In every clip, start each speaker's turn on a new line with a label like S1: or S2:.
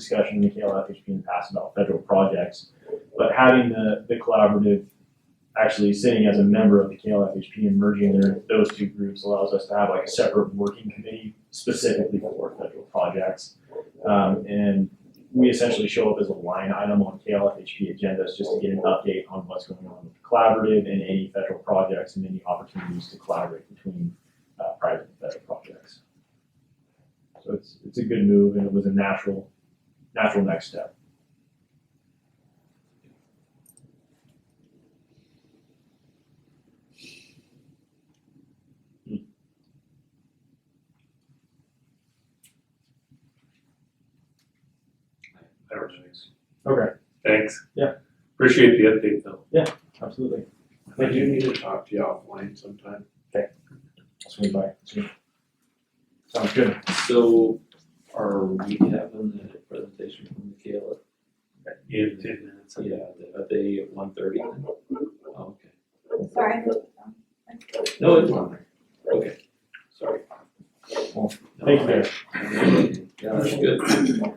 S1: discussion with KLFHP in the past about federal projects, but having the, the collaborative actually sitting as a member of the KLFHP and merging their, those two groups allows us to have like a separate working committee specifically for federal projects. Um, and we essentially show up as a line item on KLFHP agendas just to get an update on what's going on with the collaborative and any federal projects and any opportunities to collaborate between uh, private and federal projects. So it's, it's a good move and it was a natural, natural next step.
S2: I apologize.
S1: Okay.
S2: Thanks.
S1: Yeah.
S2: Appreciate the update though.
S1: Absolutely.
S3: I do need to talk to you offline sometime.
S1: Swing by. Swing. Sounds good.
S4: So are we having the presentation from the KLA?
S2: In ten minutes.
S4: Yeah, are they at one thirty then? Oh, Okay.
S5: Sorry.
S4: No, it's fine. Okay, sorry.
S1: Thank you, Dave.
S4: Yeah, that's good.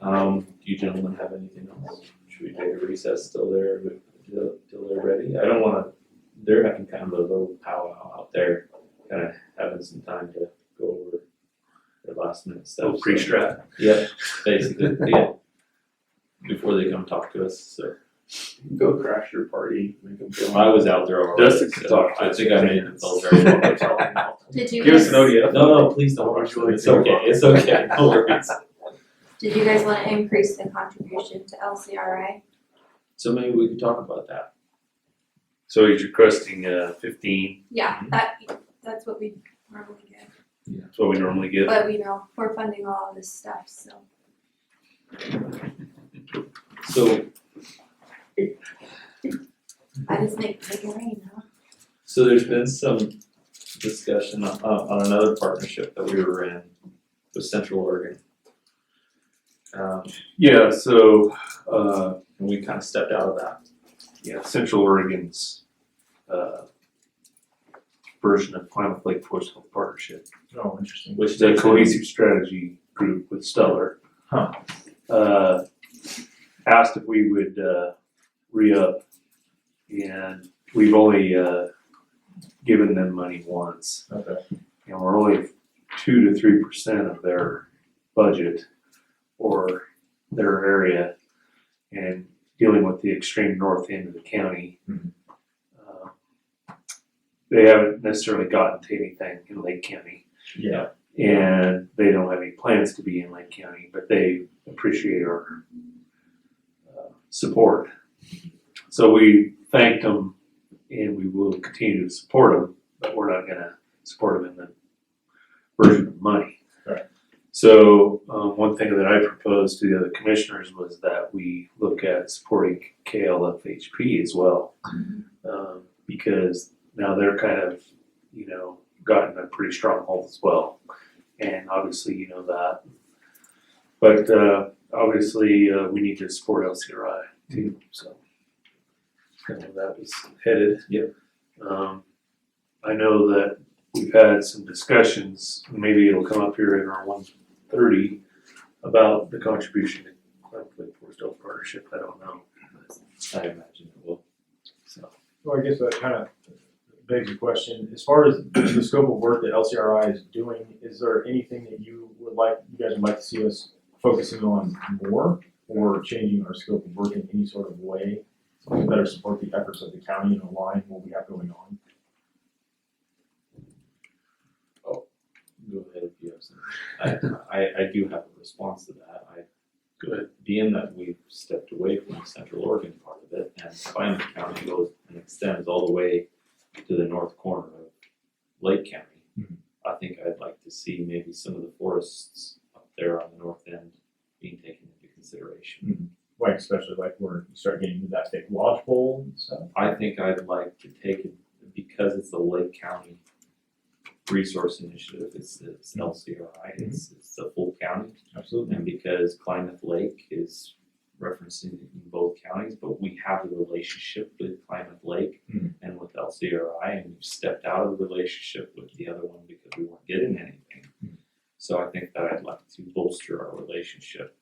S4: Um, do you gentlemen have anything else? Should we take a recess till they're, till, till they're ready? I don't wanna, they're having kind of a little powwow out there, kinda having some time to go over their last minute stuff.
S2: So
S4: so-
S2: pre-strat.
S4: Yep, basically, yeah. Before they come talk to us, so.
S3: Go crash your party, make them feel.
S4: I was out there already,
S2: Dustin can
S4: so
S2: talk to
S4: I
S2: us.
S4: think I made them feel very welcome.
S5: Did you
S2: Give us an
S5: guys,
S2: ODF.
S4: No, no, please don't rush them, it's okay, it's okay, no worries.
S5: did you guys wanna increase the contribution to LCRI?
S4: So maybe we could talk about that.
S2: So he's requesting uh fifteen,
S5: Yeah, that, that's what we normally get,
S2: that's what we normally get.
S5: but we know, we're funding all of this stuff, so.
S4: So,
S5: I just make, make it rain, huh?
S4: so there's been some discussion on, on another partnership that we were in with Central Oregon. Um,
S2: Yeah, so uh
S4: and we kind of stepped out of that.
S2: yeah, Central Oregon's uh version of Climate Lake Forest Health Partnership.
S1: Oh, interesting.
S4: Which
S2: It's a
S4: takes-
S2: cohesive strategy group with Stellar.
S1: Huh.
S2: Uh, asked if we would, uh, re-up. And we've only, uh, given them money once.
S1: Okay.
S2: And we're only two to three percent of their budget or their area. And dealing with the extreme north end of the county.
S1: Mhm.
S2: Uh, They haven't necessarily gotten to anything in Lake County
S1: Yeah.
S2: and they don't have any plans to be in Lake County, but they appreciate our uh, support. So we thanked them, and we will continue to support them, but we're not going to support them in the version of money.
S1: Right.
S2: So um, one thing that I proposed to the other commissioners was that we look at supporting KLFHP as well, um, because now they're kind of, you know, gotten a pretty strong hold as well and obviously you know that. But uh, obviously uh, we need to support LCRI too, so kind of that was headed.
S4: Yep.
S2: Um, I know that we've had some discussions. Maybe it'll come up here in our one thirty about the contribution to Climate Forest Health Partnership. I don't know.
S4: I imagine it will.
S2: So
S1: Well, I guess that kind of begs the question, as far as the scope of work that LCRI is doing, is there anything that you would like, you guys would like to see us focusing on more? Or changing our scope of work in any sort of way to better support the efforts of the county and align what we have going on?
S4: Go ahead if you have some. I, I, I do have a response to that. I
S2: go ahead.
S4: being that we've stepped away from the central Oregon part of it, and Klamath County goes and extends all the way to the north corner of Lake County.
S1: Mhm.
S4: I think I'd like to see maybe some of the forests up there on the north end being taken into consideration.
S1: Like especially like we're starting getting into that big lodgepole and stuff.
S4: I think I'd like to take it, because it's the Lake County Resource Initiative, it's, it's LCRI, it's, it's the full county.
S1: Absolutely.
S4: And because Klamath Lake is referencing it in both counties, but we have a relationship with Klamath Lake
S1: Mhm.
S4: and with LCRI, and we've stepped out of the relationship with the other one because we weren't getting anything. So I think that I'd like to bolster our relationship